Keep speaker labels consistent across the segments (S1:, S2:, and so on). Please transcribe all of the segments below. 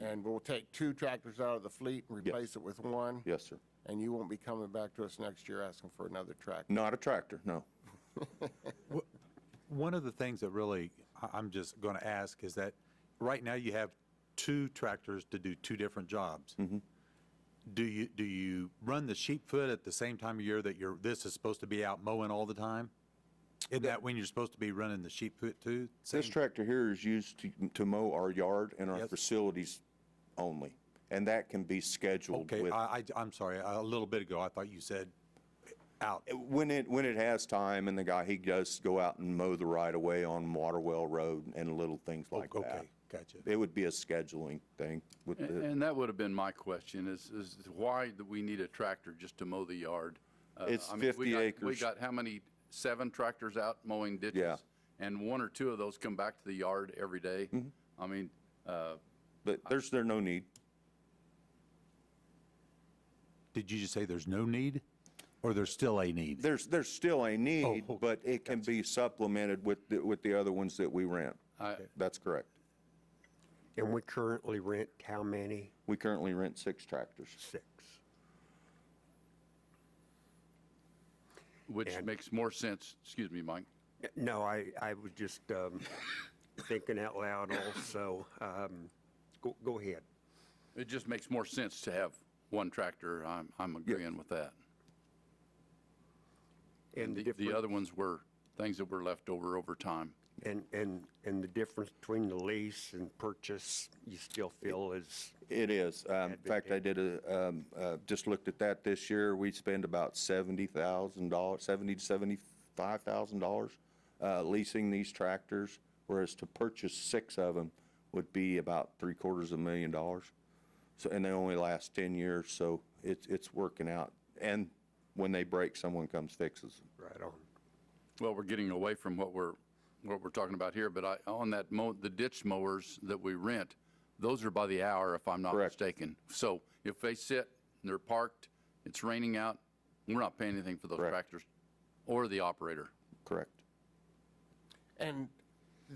S1: And we'll take two tractors out of the fleet and replace it with one?
S2: Yes, sir.
S1: And you won't be coming back to us next year asking for another tractor?
S2: Not a tractor, no.
S3: One of the things that really, I- I'm just going to ask is that, right now you have two tractors to do two different jobs.
S2: Mm-hmm.
S3: Do you, do you run the sheep foot at the same time of year that you're, this is supposed to be out mowing all the time? Isn't that when you're supposed to be running the sheep foot too?
S2: This
S3: Same-
S2: tractor here is used to, to mow our yard and our
S3: Yes.
S2: facilities only. And that can be scheduled
S3: Okay,
S2: with,
S3: I, I, am sorry, a little bit ago, I thought you said out.
S2: when it, when it has time and the guy, he does go out and mow the right of way on Waterwell Road and little things like that.
S3: Oh, Okay, gotcha.
S2: It would be a scheduling thing with
S4: A-
S2: the,
S4: And that would have been my question, is, is why do we need a tractor just to mow the yard? Uh,
S2: It's
S4: I mean,
S2: 50
S4: we got- We
S2: acres.
S4: got how many, seven tractors out mowing ditches?
S2: Yeah.
S4: And one or two of those come back to the yard every day?
S2: Mm-hmm.
S4: I mean, uh,
S2: but there's, there no need.
S3: Did you just say there's no need, or there's still a need?
S2: There's, there's still a need,
S3: okay,
S2: but it can be supplemented with, the- with the other ones that we rent.
S4: I,
S2: That's correct.
S5: And we currently rent how many?
S2: We currently rent six tractors.
S5: Six.
S4: which
S5: And-
S4: makes more sense, excuse me, Mike.
S5: No, I, I was just um, thinking out loud also. Um, Go, go ahead.
S4: It just makes more sense to have one tractor. I'm, I'm agreeing with that.
S5: And
S4: The, the
S5: different-
S4: other ones were things that were left over over time.
S5: And, and, and the difference between the lease and purchase, you still feel is,
S2: It is. Um, In fact, I did a, um, uh, just looked at that this year. We spend about seventy thousand dollars, seventy to seventy-five thousand dollars uh, leasing these tractors, whereas to purchase six of them would be about three quarters of a million dollars. So, and they only last ten years, so it's, it's working out. And when they break, someone comes fixes them.
S5: right on.
S4: Well, we're getting away from what we're, what we're talking about here, but I, on that mow, the ditch mowers that we rent, those are by the hour if I'm not
S2: Correct.
S4: mistaken. So if they sit, they're parked, it's raining out, we're not paying anything for those
S2: Correct.
S4: tractors or the operator.
S2: Correct.
S1: And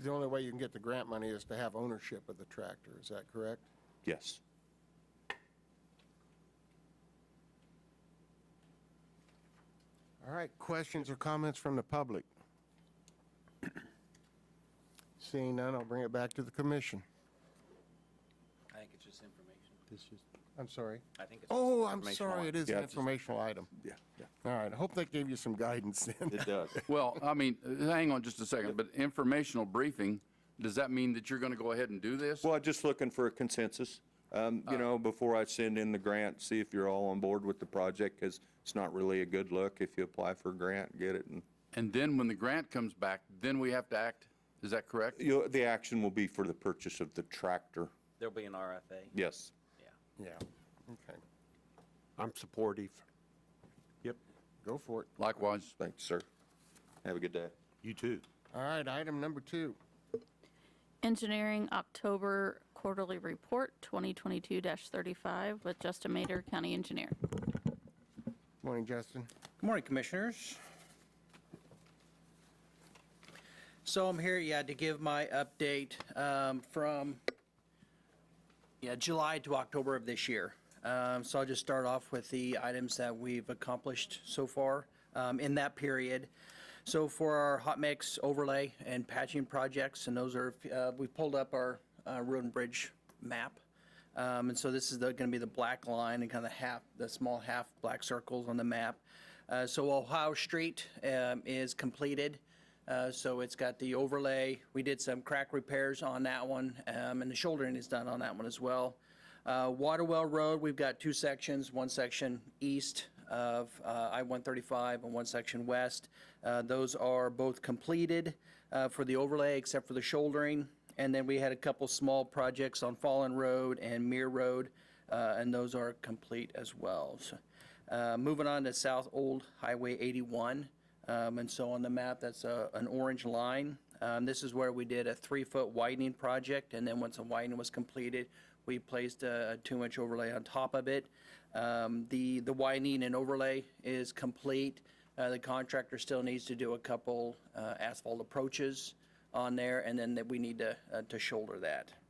S1: the only way you can get the grant money is to have ownership of the tractor, is that correct?
S2: Yes.
S1: All right, questions or comments from the public? Seeing none, I'll bring it back to the commission.
S6: I think it's just information.
S1: I'm sorry.
S6: I think it's. just
S1: Oh, I'm
S6: informational
S1: sorry, it is an
S2: Yeah, it's just-
S1: informational item.
S2: Yeah, yeah.
S1: All right, I hope that gave you some guidance then.
S2: It does.
S4: Well, I mean, uh, hang on just a second, but informational briefing, does that mean that you're going to go ahead and do this?
S2: Well, just looking for a consensus, um, you know, before I send in the grant, see if you're all on board with the project, because it's not really a good look if you apply for a grant, get it, and
S4: And then when the grant comes back, then we have to act. Is that correct?
S2: you, the action will be for the purchase of the tractor,
S6: There'll be an RFA.
S2: yes.
S1: Yeah, okay,
S5: I'm supportive.
S1: go for it.
S4: Likewise.
S2: Thank you, sir. Have a good day.
S3: You too.
S1: All right, item number two.
S7: Engineering October Quarterly Report 2022-35 with Justin Mater, County Engineer.
S1: Morning, Justin.
S6: Good morning, Commissioners. So I'm here, yeah, to give my update um, from, yeah, July to October of this year. Um, So I'll just start off with the items that we've accomplished so far um, in that period. So for our hot mix overlay and patching projects, and those are, uh, we pulled up our uh, road and bridge map. Um, And so this is going to be the black line and kind of half, the small half black circles on the map. Uh, So Ohio Street um, is completed. Uh, So it's got the overlay. We did some crack repairs on that one, um, and the shouldering is done on that one as well. Uh, Waterwell Road, we've got two sections, one section east of uh, I-135 and one section west. Uh, Those are both completed uh, for the overlay, except for the shouldering. And then we had a couple small projects on Fallen Road and Mere Road, uh, and those are complete as well. So, uh, Moving on to South Old Highway 81, um, and so on the map, that's a- an orange line. Um, This is where we did a three-foot widening project, and then once the widening was completed, we placed a a two-inch overlay on top of it. Um, The the widening and overlay is complete. Uh, The contractor still needs to do a couple uh, asphalt approaches on there, and then that we need to uh, to shoulder that.